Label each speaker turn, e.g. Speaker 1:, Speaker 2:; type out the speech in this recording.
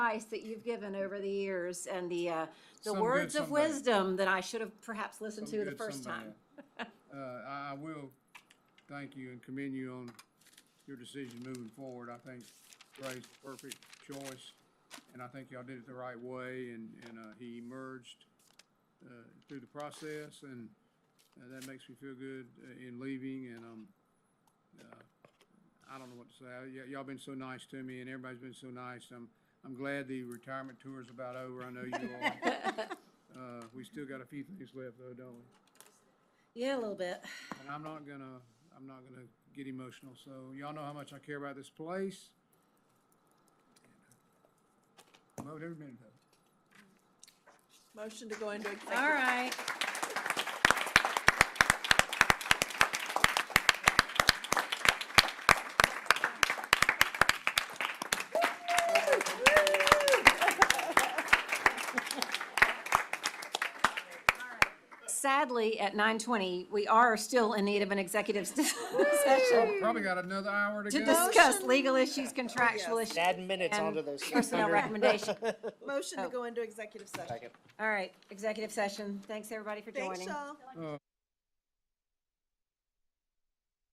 Speaker 1: advice that you've given over the years and the, uh, the
Speaker 2: Some good,
Speaker 1: words of
Speaker 2: some bad.
Speaker 1: wisdom that I should have perhaps listened
Speaker 2: some
Speaker 1: to the
Speaker 2: good,
Speaker 1: first
Speaker 2: some
Speaker 1: time.
Speaker 2: bad. Uh, I, I will thank you and commend you on your decision moving forward. I think Ray's the perfect choice, and I think y'all did it the right way, and, and, uh, he emerged, uh, through the process, and, uh, that makes me feel good uh, in leaving, and, um, uh, I don't know what to say. Y- y'all been so nice to me, and everybody's been so nice. I'm, I'm glad the retirement tour is about over. I know you are. Uh, we still got a few things left though, don't we?
Speaker 1: Yeah, a little bit.
Speaker 2: And I'm not gonna, I'm not gonna get emotional, so y'all know how much I care about this place. Loved uh, every minute of it.
Speaker 3: Motion to go into executive.
Speaker 1: All right. Sadly, at nine twenty, we are still in need of an executive session
Speaker 2: Probably got another hour to
Speaker 1: to
Speaker 2: go.
Speaker 1: discuss legal issues, contractual issues.
Speaker 4: Add minutes
Speaker 1: and
Speaker 4: onto those.
Speaker 1: Personnel
Speaker 4: 600.
Speaker 1: recommendation.
Speaker 3: Motion
Speaker 1: Oh.
Speaker 3: to go into executive session.
Speaker 4: Second.
Speaker 1: All right, executive session. Thanks, everybody, for joining.
Speaker 3: Thanks, y'all.
Speaker 2: Uh,